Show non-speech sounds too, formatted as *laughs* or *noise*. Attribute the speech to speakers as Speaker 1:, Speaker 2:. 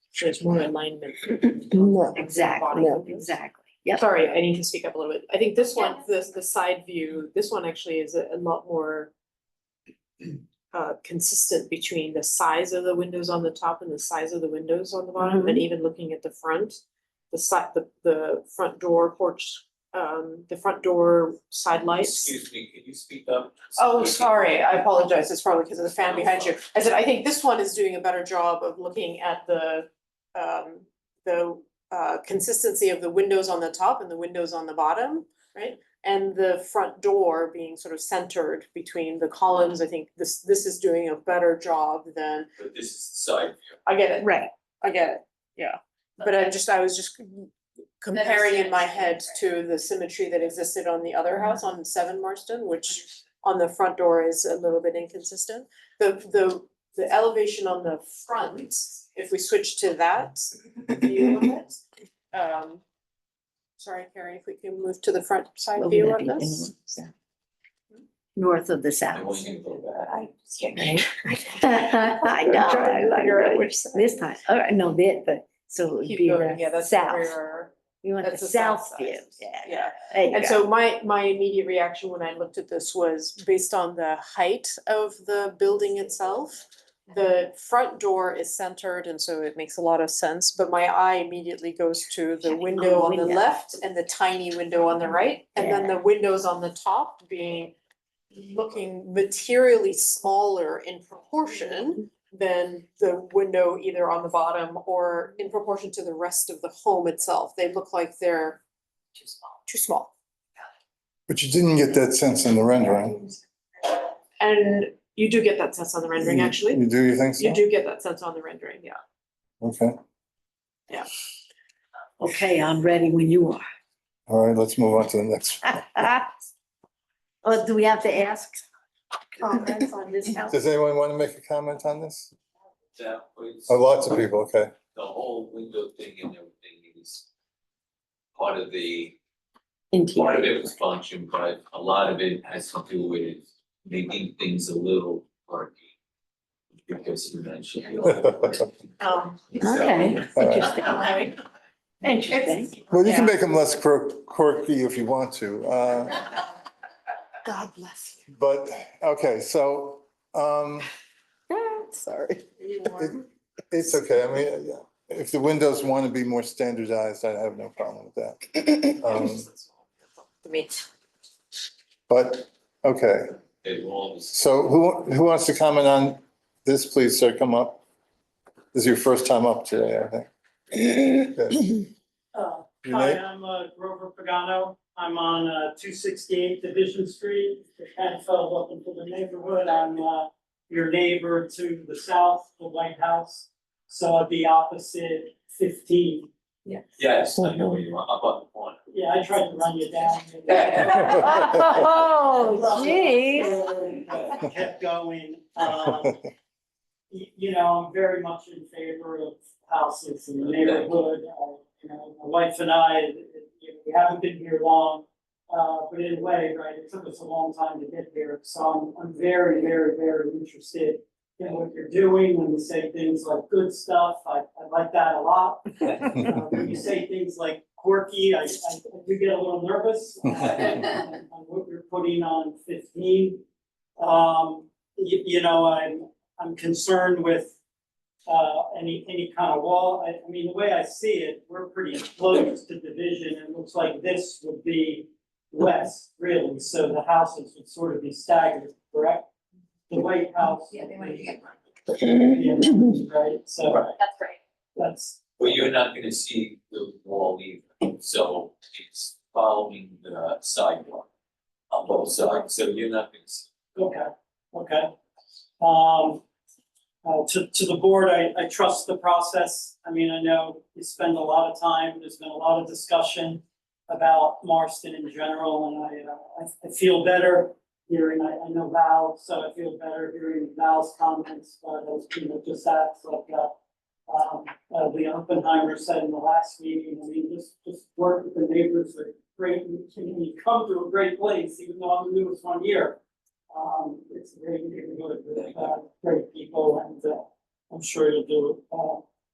Speaker 1: there's more alignment.
Speaker 2: *clears throat* No,
Speaker 3: Exactly,
Speaker 2: No.
Speaker 3: exactly. Yep,
Speaker 1: Sorry, I need to speak up a little bit. I think this one, this, the side view, this one actually is a a lot more *clears throat* uh, consistent between the size of the windows on the top and the size of the windows on the bottom,
Speaker 2: Mm-hmm.
Speaker 1: and even looking at the front. The side, the, the front door porch, um, the front door side lights.
Speaker 4: Excuse me, can you speak up?
Speaker 1: Oh, sorry, I apologize, it's probably because of the fan behind you. I said, I think this one is doing a better job of looking at the, um, the, uh, consistency of the windows on the top and the windows on the bottom, right? And the front door being sort of centered between the columns, I think this, this is doing a better job than,
Speaker 4: But this is the side view.
Speaker 1: I get it,
Speaker 3: right.
Speaker 1: I get it, yeah. But I'm just, I was just comparing in my head to the symmetry that existed on the other house on Seven Marston, which on the front door is a little bit inconsistent. The the the elevation on the front, if we switch to that view of it, um. Sorry, Carrie, if we can move to the front side
Speaker 3: What would
Speaker 1: view
Speaker 3: that
Speaker 1: of
Speaker 3: be?
Speaker 1: this.
Speaker 3: Anyone? North of the south.
Speaker 4: I want you to go
Speaker 3: I
Speaker 4: back.
Speaker 3: can't. *laughs* I know,
Speaker 1: Trying to
Speaker 3: I- I
Speaker 1: figure out
Speaker 3: know.
Speaker 1: which side.
Speaker 3: This time, all right, no, that, but, so it'd
Speaker 1: Keep
Speaker 3: be
Speaker 1: going, yeah,
Speaker 3: the
Speaker 1: that's the
Speaker 3: south.
Speaker 1: rear,
Speaker 3: You want the
Speaker 1: that's the south
Speaker 3: south
Speaker 1: side.
Speaker 3: view, yeah.
Speaker 1: yeah.
Speaker 3: there you
Speaker 1: And
Speaker 3: go.
Speaker 1: so my, my immediate reaction when I looked at this was based on the height of the building itself.
Speaker 3: Mm-hmm.
Speaker 1: The front door is centered and so it makes a lot of sense, but my eye immediately goes to the window on the
Speaker 3: window. Mm-hmm.
Speaker 1: left and the tiny window on the right. And then the windows on the top being, looking materially smaller in proportion
Speaker 3: Mm-hmm.
Speaker 1: than the window either on the bottom or in proportion to the rest of the home itself. They look like they're too small.
Speaker 5: But you didn't get that sense in the rendering.
Speaker 1: And you do get that sense on the rendering,
Speaker 5: You-
Speaker 1: actually.
Speaker 5: You do, you think so?
Speaker 1: You do get that sense on the rendering, yeah.
Speaker 5: Okay,
Speaker 3: Okay, I'm ready when you
Speaker 1: *laughs*
Speaker 5: all right, let's move on to the next.
Speaker 3: are. Oh, do we have to ask comments on this
Speaker 1: *laughs*
Speaker 3: house?
Speaker 5: Does anyone want to make a comment on this?
Speaker 4: That was
Speaker 5: Oh, lots of people, okay. *laughs*
Speaker 4: the whole window thing and everything is part of the, part of it was function, but a lot of it has to do with making things a little quirky. Because you mentioned.
Speaker 5: *laughs*
Speaker 1: Um, *laughs*
Speaker 3: Okay,
Speaker 5: All right.
Speaker 1: I
Speaker 3: interesting.
Speaker 5: Well, you can make them less quirk- quirky if you want to. uh,
Speaker 3: God bless
Speaker 5: But, okay, so um,
Speaker 3: you. Sorry.
Speaker 5: it- it's okay. I mean, if the windows want to be more standardized, I have no problem with that.
Speaker 1: *laughs*
Speaker 5: Um,
Speaker 1: mean,
Speaker 5: But, okay,
Speaker 4: It was,
Speaker 5: so who, who wants to comment on this, please, sir, come up? This is your first time up today, I think. Good. Your
Speaker 6: Hi,
Speaker 5: name?
Speaker 6: I'm uh, Grover Pagano. I'm on uh, two sixty-eight Division Street. And so welcome to the neighborhood. I'm uh, your neighbor to the south, the White House. So I'd be opposite fifteen.
Speaker 4: yes, I know you are, up on the corner.
Speaker 6: Yeah, I tried to run you down.
Speaker 3: *laughs*
Speaker 5: *laughs*
Speaker 3: Oh, geez.
Speaker 6: Uh, Kept going. *laughs*
Speaker 5: *laughs*
Speaker 6: Um, y- you know, I'm very much in favor of houses in the neighborhood. Uh, You know, my wife and I, uh, you know, we haven't been here long, uh, but in a way, right, it took us a long time to get here. So I'm, I'm very, very, very interested in what you're doing when you say things like good stuff. I, I like that a lot. Uh, When you say things like quirky, I, I I do get a little nervous uh, on on what you're putting on fifteen. Um, you, you know, I'm, I'm concerned with, uh, any, any kind of wall, I, I mean, the way I see it, we're pretty close to division, and it looks like this would be west, really, so the houses would sort of be staggered, correct? The White House. Yeah, they might be. Right, so
Speaker 7: That's right.
Speaker 6: that's,
Speaker 4: But you're not gonna see the wall either, so it's following the sidewalk on both sides, so you're not gonna see.
Speaker 6: Okay, okay. Um, uh, to, to the board, I, I trust the process. I mean, I know you spend a lot of time, there's been a lot of discussion about Marston in general, and I, uh, I, I feel better hearing, I, I know Val, so I feel better hearing Val's comments, uh, those people just asked, like, uh, um, uh, the Oppenheimer said in the last meeting, I mean, just, just work with the neighbors, like, great, you come to a great place, even though I'm the newest one here. Um, it's a great neighborhood with, uh, great people and, uh, I'm sure you'll do, uh,